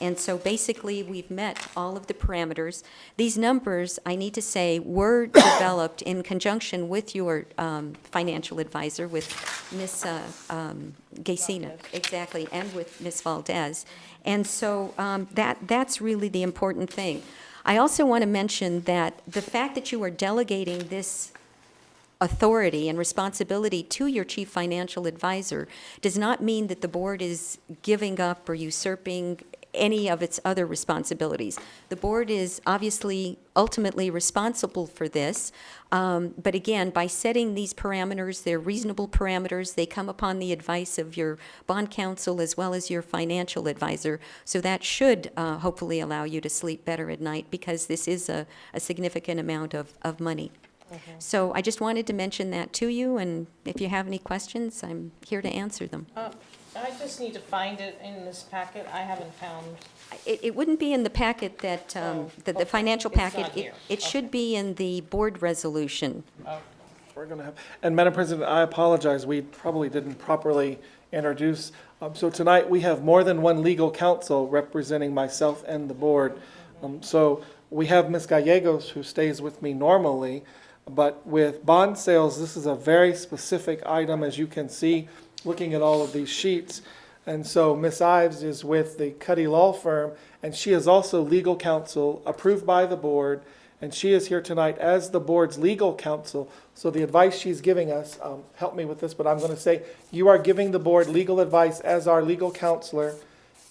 And so basically, we've met all of the parameters. These numbers, I need to say, were developed in conjunction with your um, financial advisor, with Ms. uh, um, Gesina. Exactly, and with Ms. Valdez. And so um, that, that's really the important thing. I also want to mention that the fact that you are delegating this authority and responsibility to your chief financial advisor does not mean that the board is giving up or usurping any of its other responsibilities. The board is obviously ultimately responsible for this, um, but again, by setting these parameters, they're reasonable parameters, they come upon the advice of your bond counsel as well as your financial advisor, so that should uh, hopefully allow you to sleep better at night, because this is a a significant amount of of money. So I just wanted to mention that to you, and if you have any questions, I'm here to answer them. Uh, I just need to find it in this packet. I haven't found, It, it wouldn't be in the packet that, um, Oh, the, the okay. financial It's not packet. It- here. It should be in the board resolution. We're going to have, and Madam President, I apologize, we probably didn't properly introduce. Um, So tonight, we have more than one legal counsel representing myself and the board. Um, So we have Ms. Gallegos, who stays with me normally, but with bond sales, this is a very specific item, as you can see, looking at all of these sheets. And so Ms. Ives is with the Cuddy Law Firm, and she is also legal counsel approved by the board. And she is here tonight as the board's legal counsel. So the advice she's giving us, um, help me with this, but I'm going to say, you are giving the board legal advice as our legal counselor.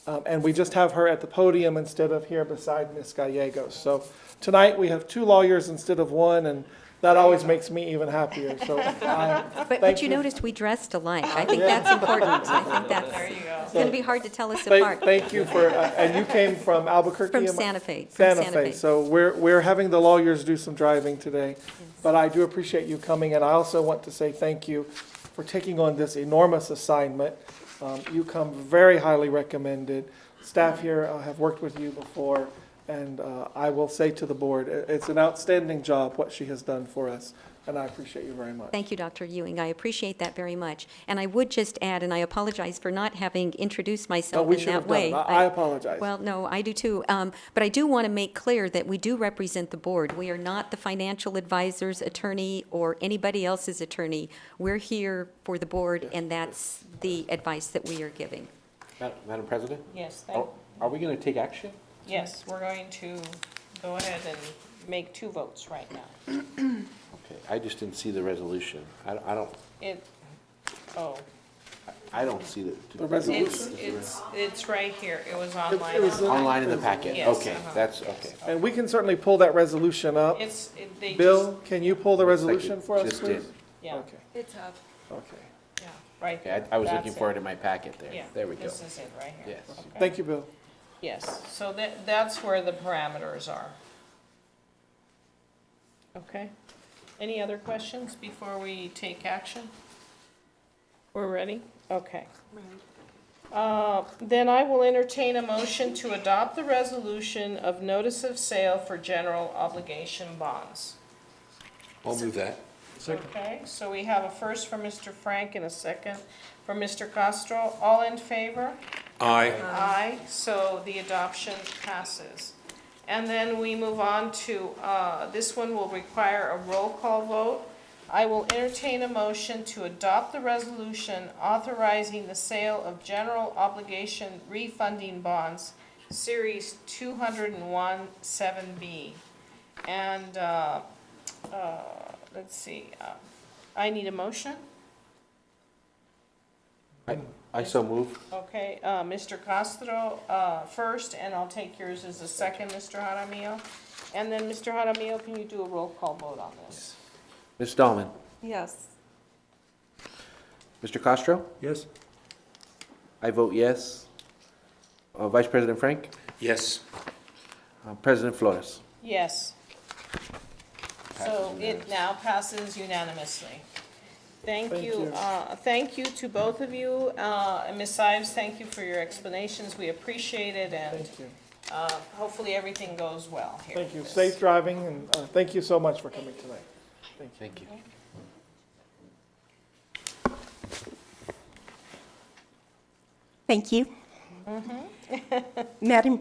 Um, and we just have her at the podium instead of here beside Ms. Gallegos. So tonight, we have two lawyers instead of one, and that always makes me even happier. So I, But, but Ah, Thank you you. Ah, noticed we dressed alike. I think Yeah. that's important. I think that's, you go. it's going to be hard to tell us Thank, apart. thank you for, uh, and you came from Albuquerque? From am I- Santa Fe, from Santa Santa Fe, Fe. so we're, we're having the lawyers do some driving today. But I do appreciate you coming, and I also want to say thank you for taking on this enormous assignment. Um, You come very highly recommended. Staff here uh, have worked with you before, and uh, I will say to the board, i- it's an outstanding job, what she has done for us, and I appreciate you very much. Thank you, Dr. Ewing. I appreciate that very much. And I would just add, and I apologize for not having introduced No, myself we in should that have done way. it. I I apologize. Well, no, I do too. Um, But I do want to make clear that we do represent the board. We are not the financial advisor's attorney or anybody else's attorney. We're here for the board, and that's the advice that we are giving. Ma- Madam President? Yes, thank, Are are we going to take action? yes, we're going to go ahead and make two votes right now. Okay, I just didn't see the resolution. I don't- I don't, It, oh, I don't see the. The resolution. it's, it's, it's right here. It was It online. was Online in the packet, Yes, okay, uh-huh, that's, yes. okay. And we can certainly pull that resolution up. It's, it- they just, Bill, can you pull the resolution for us, Just did. please? yeah, Okay, It's up. okay. yeah, right Okay, there. I I was looking That's for it in my packet there. Yeah, There we go. This is it, right here. Yes. Okay. Thank you, Bill. Yes, so that, that's where the parameters are. Okay. Any other questions before we take action? We're ready? Okay. Uh, Then I will entertain a motion to adopt the resolution of notice of sale for general obligation bonds. I'll move that. Okay, so we have a first from Mr. Frank and a second from Mr. Castro. All in favor? Aye. Aye, so the adoption passes. And then we move on to, uh, this one will require a roll call vote. I will entertain a motion to adopt the resolution authorizing the sale of general obligation refunding bonds, Series 201-7B. And, uh, uh, let's see, uh, I need a motion? I so move. Okay, uh, Mr. Castro, uh, first, and I'll take yours as a second, Mr. Jaramillo. And then, Mr. Jaramillo, can you do a roll call vote on this? Ms. Dahlman? Yes. Mr. Castro? Yes? I vote yes. Uh, Vice President Frank? Yes. Uh, President Flores? Yes. So Passes it now passes unanimously. Thank Thank you, you. uh, thank you to both of you, uh, and Ms. Ives, thank you for your explanations, we appreciate it, and, Thank you. uh, hopefully everything goes well here. Thank you. with Safe this. driving, and uh, thank you so much for coming tonight. Thank you. Thank you. Madam